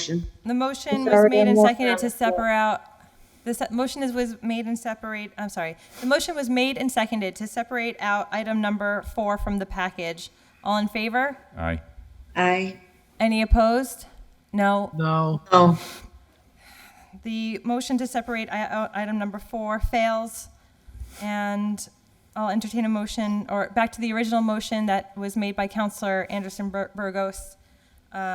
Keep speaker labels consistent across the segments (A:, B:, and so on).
A: Motion.
B: The motion
C: It's
B: was
C: already
B: made
C: on
B: and
C: the-
B: seconded to separate out, the se- motion is, was made and separate, I'm sorry. The motion was made and seconded to separate out item number four from the package. All in favor?
D: Aye.
A: Aye.
B: Any opposed? No.
E: No,
A: No.
B: The motion to separate i- out item number four fails. And I'll entertain a motion, or back to the original motion that was made by Counselor Anderson Bur- Burgos.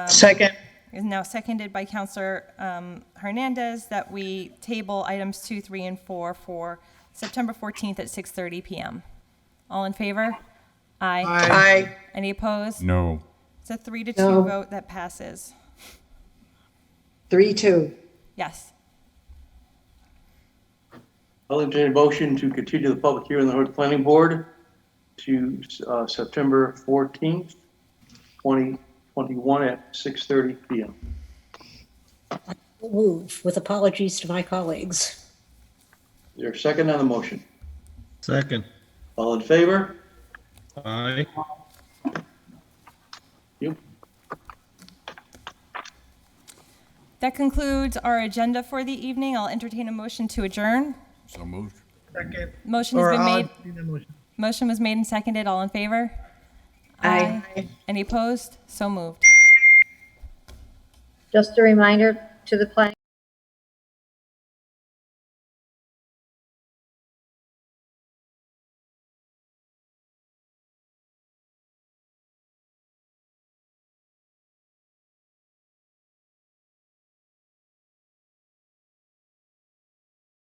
E: second,
B: is now seconded by Counselor um, Hernandez that we table items two, three, and four for September 14th at 6:30 PM. All in favor? Aye.
E: I,
A: Aye.
B: Any opposed?
D: No.
B: It's a three to two
A: No.
B: vote that passes.
A: Three, two.
B: Yes.
F: I'll entertain a motion to continue the public hearing on the Hood Planning Board to uh, September 14th, 2021 at 6:30 PM.
C: move with apologies to my colleagues.
F: Is there a second on the motion?
G: Second.
F: All in favor?
G: Aye.
F: You.
B: That concludes our agenda for the evening. I'll entertain a motion to adjourn.
D: So moved.
E: second.
B: Motion has
E: Or
B: been
E: I'll
B: made,
E: entertain a motion.
B: motion was made and seconded. All in favor?
A: Aye.
B: Any opposed? So moved.
H: Just a reminder to the planning